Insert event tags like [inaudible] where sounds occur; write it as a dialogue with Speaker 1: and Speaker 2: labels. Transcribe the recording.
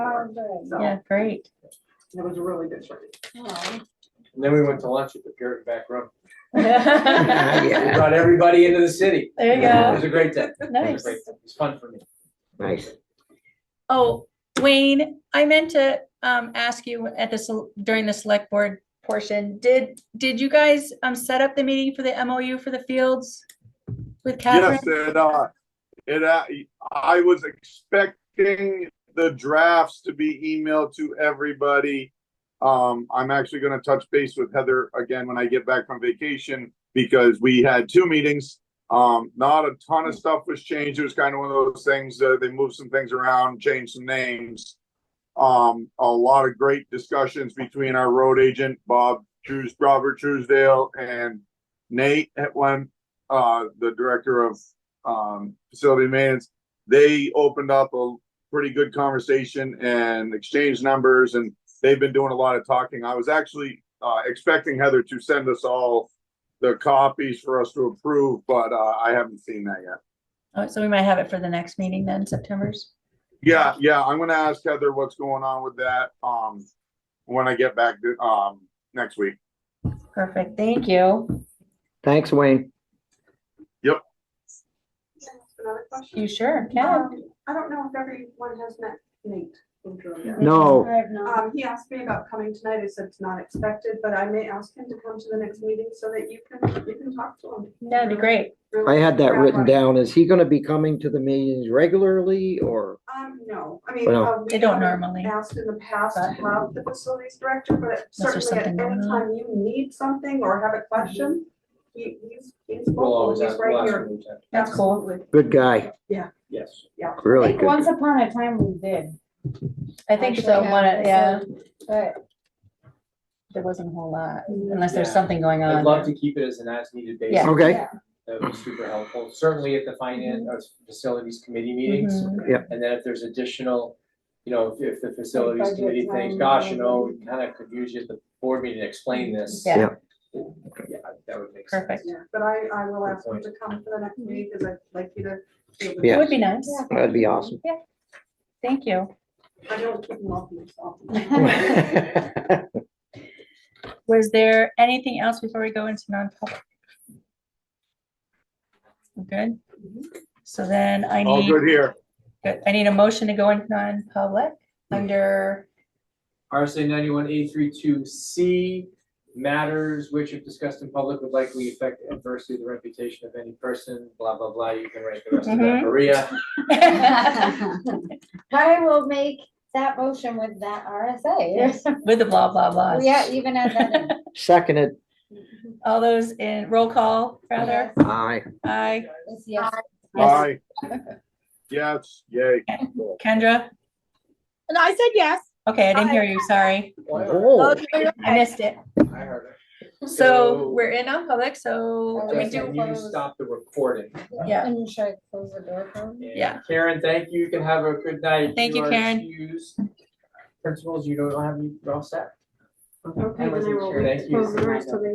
Speaker 1: Oh, good.
Speaker 2: So
Speaker 3: Yeah,
Speaker 2: it
Speaker 3: great.
Speaker 2: was a really good trip.
Speaker 1: Oh.
Speaker 4: And then we went to lunch at the Puritan
Speaker 3: [laughs]
Speaker 4: Back Room.
Speaker 3: There
Speaker 4: We
Speaker 5: Yeah,
Speaker 4: brought everybody into the city.
Speaker 3: you
Speaker 4: It
Speaker 3: go.
Speaker 4: was a great day. It was a
Speaker 3: Nice.
Speaker 4: great day. It was fun for me.
Speaker 5: [laughs] nice.
Speaker 3: Oh, Wayne, I meant to um ask you at this during the select board portion, did did you guys um set up the meeting for the MOU for the fields? With Catherine?
Speaker 6: Yes, it, uh, it, uh, I was expecting the drafts to be emailed to everybody. Um, I'm actually gonna touch base with Heather again when I get back from vacation, because we had two meetings. Um, not a ton of stuff was changed, it was kind of one of those things, uh, they moved some things around, changed some names. Um, a lot of great discussions between our road agent, Bob Trues, Robert Truesdale, and Nate at one uh, the director of, um, facility maintenance, they opened up a pretty good conversation and exchanged numbers and they've been doing a lot of talking. I was actually, uh, expecting Heather to send us all the copies for us to approve, but, uh, I haven't seen that yet.
Speaker 3: Oh, so we might have it for the next meeting then, September's.
Speaker 6: Yeah, yeah, I'm gonna ask Heather what's going on with that, um, when I get back, to- um, next week.
Speaker 3: Perfect, thank you.
Speaker 5: Thanks, Wayne.
Speaker 2: Another question?
Speaker 3: You sure can.
Speaker 2: Um, I don't know if everyone has met Nate from Drew
Speaker 5: [laughs]
Speaker 2: yet.
Speaker 5: No.
Speaker 1: I have not.
Speaker 2: Um, he asked me about coming tonight. I said it's not expected, but I may ask him to come to the next meeting so that you can, you can talk to him.
Speaker 3: That'd be great.
Speaker 2: Really
Speaker 5: I had that
Speaker 2: grab
Speaker 5: written
Speaker 2: on-
Speaker 5: down. Is he gonna be coming to the meetings regularly or?
Speaker 2: Um, no, I mean.
Speaker 5: Well,
Speaker 2: uh, we
Speaker 3: They don't
Speaker 2: haven't
Speaker 3: normally,
Speaker 2: Asked in the past
Speaker 3: but-
Speaker 2: to have the facilities director, but
Speaker 3: just
Speaker 2: certainly at any
Speaker 3: something going on.
Speaker 2: time you need something or have a question, he, he's, he's
Speaker 4: We'll
Speaker 2: vocal,
Speaker 4: always
Speaker 2: he's
Speaker 4: ask the
Speaker 2: right
Speaker 4: last
Speaker 2: here.
Speaker 4: one we checked.
Speaker 3: That's cool.
Speaker 2: Absolutely.
Speaker 5: Good guy,
Speaker 4: Yes.
Speaker 1: I
Speaker 5: really
Speaker 1: think
Speaker 5: good.
Speaker 1: once
Speaker 5: guy.
Speaker 1: upon a time we did,
Speaker 3: I think so,
Speaker 1: Actually,
Speaker 3: one,
Speaker 1: yeah.
Speaker 3: yeah,
Speaker 1: but
Speaker 3: there wasn't a whole lot, unless there's
Speaker 4: Yeah.
Speaker 3: something going on.
Speaker 4: I'd love to keep it as an as-needed basis.
Speaker 3: uh, Yeah.
Speaker 5: Okay,
Speaker 1: yeah.
Speaker 4: That would be super helpful, certainly at the finance,
Speaker 3: Mm-hmm.
Speaker 4: uh, facilities committee meetings.
Speaker 3: Mhm.
Speaker 5: Yep.
Speaker 4: And then if there's additional, you know, if, if the facilities
Speaker 1: budget
Speaker 4: committee thinks,
Speaker 1: time,
Speaker 4: gosh, you know,
Speaker 1: whatever.
Speaker 4: we kind of could use you at the board meeting to explain this.
Speaker 3: Yeah.
Speaker 5: Yeah.
Speaker 4: Yeah, that would make sense.
Speaker 3: Perfect,
Speaker 2: Yeah, but I, I will ask him
Speaker 4: point.
Speaker 2: to come for the
Speaker 3: Mm-hmm.
Speaker 2: next meeting because I'd like you to. be able to-
Speaker 5: Yeah.
Speaker 3: would be nice,
Speaker 5: that'd be awesome.
Speaker 3: thank you.
Speaker 2: I don't keep him off myself.
Speaker 3: Was there anything else before we go into non-public? We're Good, so then I
Speaker 6: All
Speaker 3: need,
Speaker 6: good here.
Speaker 3: good. I need a motion to go into non-public under, [laughs]
Speaker 4: RSA ninety-one A three two C, matters which if discussed in public would likely affect adversely the reputation of any person, blah, blah, blah, you can write the rest of that,
Speaker 3: Mhm.
Speaker 4: Maria.
Speaker 1: [laughs] I will make that motion with that RSA.
Speaker 3: with the blah, blah, blah.
Speaker 1: Yeah, even at that. end.
Speaker 5: [laughs] Seconded,
Speaker 3: [laughs]
Speaker 1: [laughs]
Speaker 3: All those in roll call, rather,
Speaker 5: aye.
Speaker 3: aye,
Speaker 1: It's yes.
Speaker 3: Yes.
Speaker 6: Bye.
Speaker 3: [laughs]
Speaker 6: Yes, yay.
Speaker 3: Kendra,
Speaker 7: And I said yes.
Speaker 3: okay, I didn't hear you, sorry,
Speaker 5: Oh,
Speaker 3: I missed it.
Speaker 4: I heard it.
Speaker 3: So we're in non-public, so
Speaker 1: Are
Speaker 3: we
Speaker 4: Just
Speaker 3: do,
Speaker 4: when you
Speaker 1: close-
Speaker 4: stop the recording.
Speaker 3: Yeah.
Speaker 1: And should I close the door for him?
Speaker 4: And
Speaker 3: Yeah.
Speaker 4: Karen, thank you, you can have a good night.
Speaker 3: Thank you,
Speaker 4: are
Speaker 3: Karen.
Speaker 4: excused. Principals, you don't have, any- you're all set.
Speaker 2: Okay,
Speaker 4: I
Speaker 2: then I
Speaker 4: wasn't
Speaker 2: will
Speaker 4: sure. Thank you.
Speaker 2: close the rest of the